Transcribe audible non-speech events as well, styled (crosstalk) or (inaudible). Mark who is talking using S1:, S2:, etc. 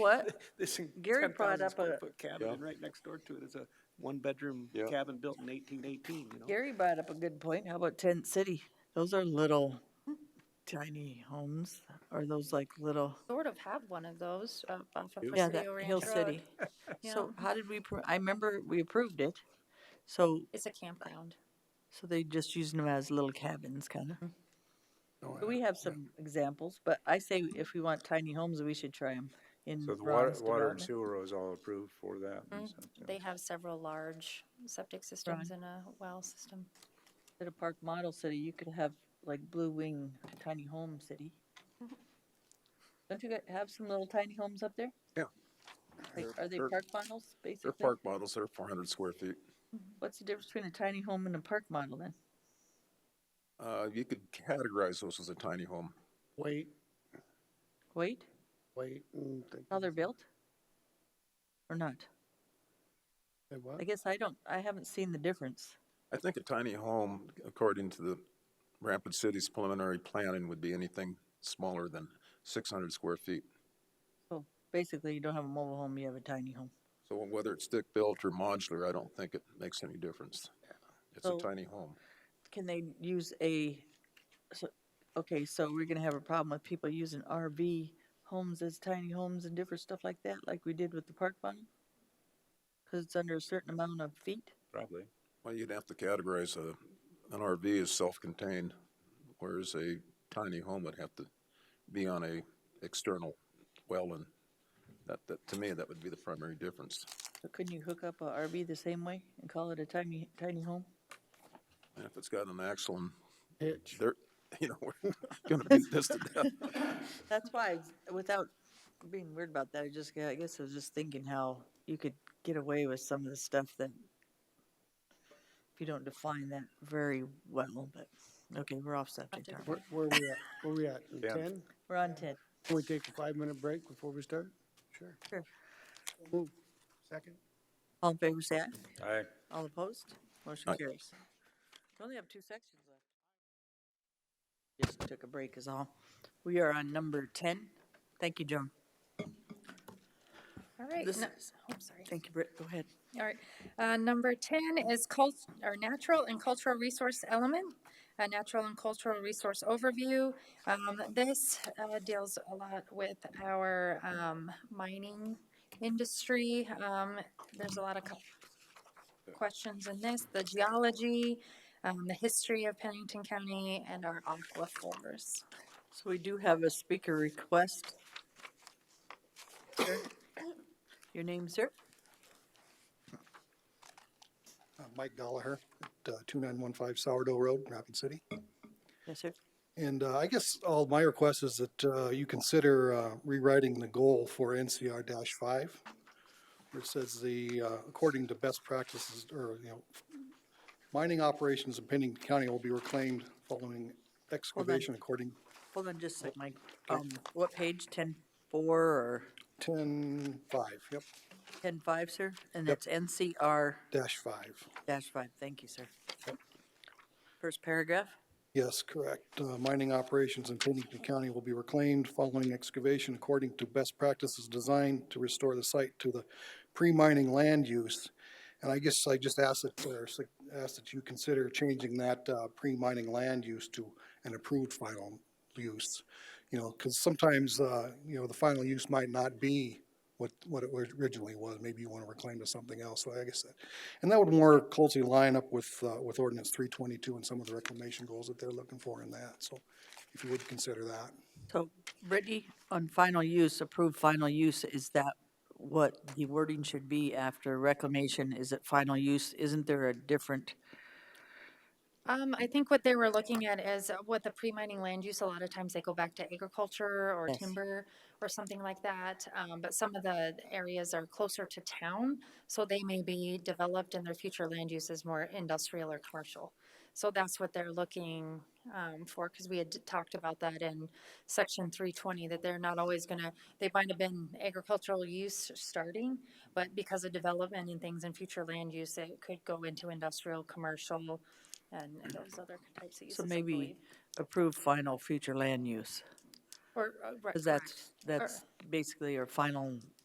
S1: (laughs)
S2: What?
S3: This
S2: Gary
S3: ten
S2: brought
S3: thousand
S2: up
S3: square
S2: a-
S3: foot cabin,
S4: Yeah.
S3: and right next door to it is a one-bedroom
S4: Yeah.
S3: cabin built in eighteen eighteen, you know?
S2: Gary brought up a good point. How about Tent City?
S1: Those are little
S2: Hmm.
S1: tiny homes. Are those like little?
S5: sort of have one of those uh, off of
S1: Yeah,
S5: Presidio
S1: that Hill
S5: Ranch Road.
S1: City.
S5: Yeah,
S1: So how did we, pro- I remember we approved it. So,
S5: it's a campground.
S1: so they just using them as little cabins kind of.
S6: Oh,
S2: We have some examples, but I say if we want tiny homes, we should try them in
S4: So the water,
S2: Ron's
S4: water and
S2: development.
S4: sewer was all approved for that. and so, yeah.
S5: They have several large septic systems and a well system.
S2: Instead of Park Model City, you could have like Blue Wing Tiny Home City.
S1: Mm-hmm.
S2: Don't you got- have some little tiny homes up there?
S6: Yeah.
S2: Like,
S6: They're-
S2: are they
S6: they're-
S2: park models,
S6: They're
S2: basically?
S6: park models, they're four hundred square feet.
S2: What's the difference between a tiny home and a park model then?
S6: Uh, you could categorize those as a tiny home.
S3: Wait,
S2: Wait,
S3: wait.
S2: how they're built? Or not? I guess I don't, I haven't seen the difference.
S6: I think a tiny home, according to the Rapid City's preliminary planning, would be anything smaller than six hundred square feet.
S2: So basically, you don't have a mobile home, you have a tiny home.
S6: So whether it's stick-built or modular, I don't think it makes any difference. It's a
S2: So-
S6: tiny home.
S2: Can they use a, so, okay, so we're gonna have a problem with people using RV homes as tiny homes and different stuff like that, like we did with the park model? Cause it's under a certain amount of feet?
S4: Probably.
S6: Well, you'd have to categorize a, an RV as self-contained, whereas a tiny home would have to be on a external well and that, that, to me, that would be the primary difference.
S2: So couldn't you hook up a RV the same way and call it a tiny, tiny home?
S6: And if it's got an axle and they're, (laughs) you know, we're gonna beat this to death.
S2: That's why, I- without being weird about that, I just, I guess I was just thinking how you could get away with some of the stuff that if you don't define that very well, but, okay, we're off subject, aren't we?
S7: Where, where are we at? Where we at?
S4: Yeah.
S7: Ten?
S2: We're on ten.
S7: Can we take a five-minute break before we start? Sure.
S2: Sure.
S7: Move. Second?
S2: All in favor, say aye.
S4: I,
S2: All opposed? Motion
S6: Aye.
S2: carries. We only have two sections left. Just took a break is all. We are on number ten. Thank you, Joan.
S5: All right.
S2: This
S5: no-
S2: is-
S5: oh, sorry.
S2: Thank you, Britt. Go ahead.
S5: All right, uh, number ten is cult, or natural and cultural resource element, a natural and cultural resource overview. Um, this, uh, deals a lot with our, um, mining industry. Um, there's a lot of co- questions in this, the geology, um, the history of Pennington County and our aquifers.
S2: So we do have a speaker request. Sir? Your name, sir?
S8: Uh, Mike Gallagher at uh, 2915 Sourdough Road, Rapid City.
S2: Yes, sir.
S8: And uh, I guess all my request is that uh, you consider uh, rewriting the goal for NCR-5, which says the, uh, according to best practices, or, you know, mining operations in Pennington County will be reclaimed following excavation according
S2: Hold on just a sec, Mike. Um, what page? Ten four or
S8: 10.5, yep,
S2: ten five, sir? And
S8: Yep.
S2: that's NCR
S8: dash 5.
S2: dash five. Thank you, sir. First paragraph?
S8: Yes, correct. Uh, Mining operations in Pennington County will be reclaimed following excavation according to best practices designed to restore the site to the pre-mining land use. And I guess I just ask that, or s- ask that you consider changing that uh, pre-mining land use to an approved final use. You know, because sometimes, uh, you know, the final use might not be what, what it originally was. Maybe you want to reclaim to something else, so I guess that. And that would more closely line up with, uh, with ordinance three twenty-two and some of the reclamation goals that they're looking for in that, so if you would consider that.
S2: So Brittany, on final use, approved final use, is that what the wording should be after reclamation? Is it final use? Isn't there a different?
S5: Um, I think what they were looking at is uh, what the pre-mining land use, a lot of times they go back to agriculture or
S2: Yes.
S5: timber or something like that. Um, but some of the areas are closer to town, so they may be developed and their future land use is more industrial or commercial. So that's what they're looking, um, for, because we had d- talked about that in section three twenty, that they're not always gonna, they might have been agricultural use starting, but because of development and things in future land use, it could go into industrial, commercial, and and those other types of uses.
S2: So
S5: I
S2: maybe
S5: believe.
S2: approved final future land use.
S5: Or, uh, right,
S2: Because
S5: correct.
S2: that's, that's basically our final